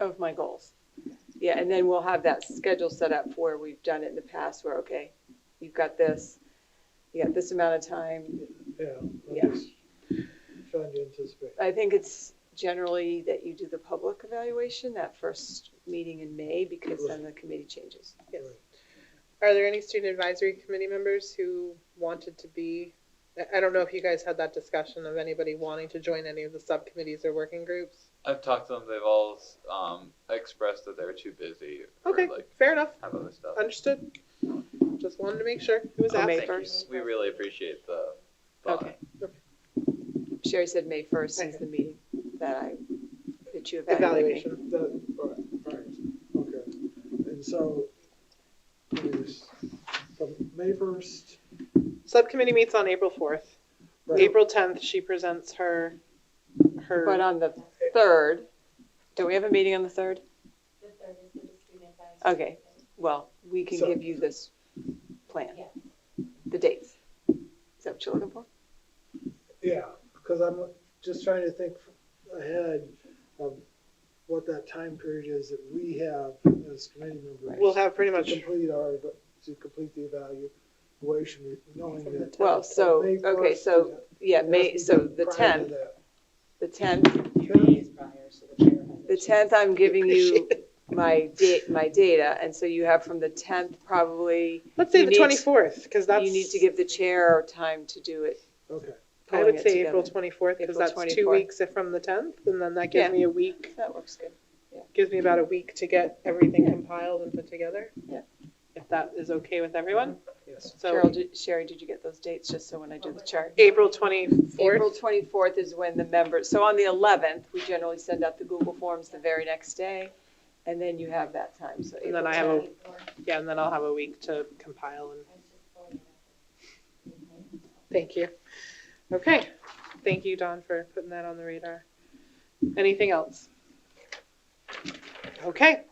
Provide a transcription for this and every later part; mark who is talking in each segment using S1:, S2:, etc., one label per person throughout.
S1: of my goals. Yeah, and then we'll have that schedule set up where we've done it in the past where, okay, you've got this, you got this amount of time.
S2: Yeah. I'm
S1: Yeah.
S2: just Trying to anticipate.
S1: I think it's generally that you do the public evaluation, that first meeting in May, because then the committee changes.
S3: Yes.
S2: Right.
S3: Are there any student advisory committee members who wanted to be? I- I don't know if you guys had that discussion of anybody wanting to join any of the subcommittees or working groups.
S4: I've talked to them. They've all um, expressed that they were too busy for
S3: Okay,
S4: like
S3: fair enough.
S4: have other stuff.
S3: Understood. Just wanted to make sure who was
S1: Oh, May
S3: asking.
S4: Thank you.
S1: first.
S4: We really appreciate the thought.
S1: Okay. Sherry said May first is the meeting that I, that you evaluate me.
S3: Evaluation.
S2: That, all right, all right, okay. And so, let me just- from May first.
S3: Subcommittee meets on April fourth. April tenth, she presents her,
S1: But uh,
S3: her,
S1: on the third, don't we have a meeting on the third?
S5: The third is the student advisory.
S1: Okay, well, we can
S2: So-
S1: give you this plan,
S5: Yes.
S1: the dates. Is that what you're looking for?
S2: Yeah, because I'm just trying to think ahead of what that time period is that we have as committee members.
S3: we'll have pretty
S2: To
S3: much,
S2: complete our, to complete the evaluation, knowing that.
S1: Well, so,
S2: May
S1: okay,
S2: 1st,
S1: so, yeah,
S2: it has to
S1: May,
S2: be
S1: so the
S2: prior to
S1: tenth,
S2: that.
S1: the tenth,
S2: Sure.
S6: days prior, so the chair has. a
S1: the
S6: chance.
S1: tenth, I'm giving you
S3: Appreciate
S1: my date, my data, and so you have from the tenth probably,
S3: let's say
S1: you
S3: the
S1: need-
S3: twenty-fourth, because that's.
S1: you need to give the chair time to do it,
S2: Okay,
S3: I
S1: pulling
S3: would
S1: it
S3: say April
S1: together.
S3: twenty-fourth, because
S1: April
S3: that's two
S1: 24th.
S3: weeks from the tenth, and then that gives
S1: Yeah.
S3: me a week.
S1: That works good.
S3: gives me about a week to get everything compiled and put together.
S1: Yeah.
S3: If that is okay with everyone.
S2: yes.
S1: Carol,
S3: So
S1: did- Sherry, did you get those dates, just so when I do the chart? April
S3: April 24th,
S1: twenty-fourth is when the members, so on the eleventh, we generally send out the Google Forms the very next day, and then you have that time, so.
S3: And then
S1: April
S3: I have a-
S1: 10th.
S5: Before I
S3: yeah, and then I'll have a week to compile and,
S5: was just pulling it up.
S3: thank you. Okay, thank you, Don, for putting that on the radar. Anything else? Okay,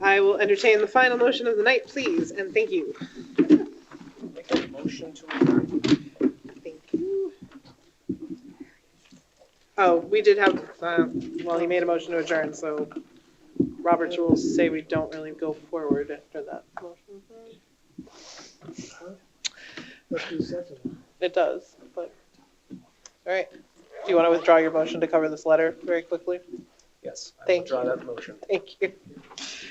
S3: I will entertain the final motion of the night, please, and thank you.
S6: Make a motion to adjourn.
S3: Thank you. Oh, we did have, uh, well, he made a motion to adjourn, so Robert's rules say we don't really go forward after that motion.
S2: Let's do second.
S3: It does, but, all right. Do you want to withdraw your motion to cover this letter very quickly?
S6: Yes, I
S3: Thank
S6: withdraw that motion.
S3: Thank you.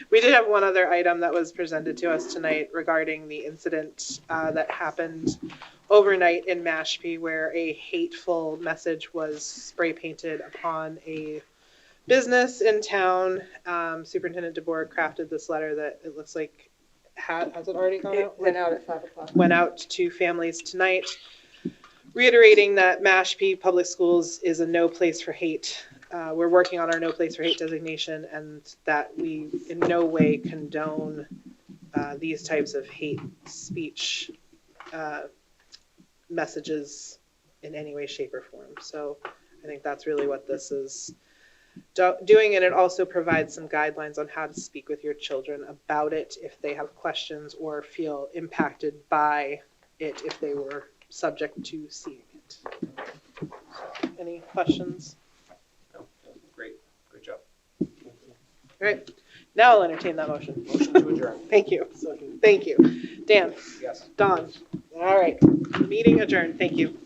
S3: We did have one other item that was presented to us tonight regarding the incident uh, that happened overnight in Mashpee where a hateful message was spray painted upon a business in town. Um, Superintendent DeBoer crafted this letter that it looks like had, has it already gone
S1: It
S3: out?
S1: went out at five o'clock.
S3: went out to families tonight, reiterating that Mashpee Public Schools is a no place for hate. Uh, We're working on our no place for hate designation and that we in no way condone uh, these types of hate speech uh, messages in any way, shape, or form. So I think that's really what this is do- doing, and it also provides some guidelines on how to speak with your children about it if they have questions or feel impacted by it if they were subject to seeing it. Any questions?
S6: No, Great, good job.
S3: All right, now I'll entertain that motion.
S6: Motion to adjourn,
S3: Thank you,
S2: Second.
S3: thank you. Dan,
S6: yes.
S3: Don, all right, meeting adjourned, thank you.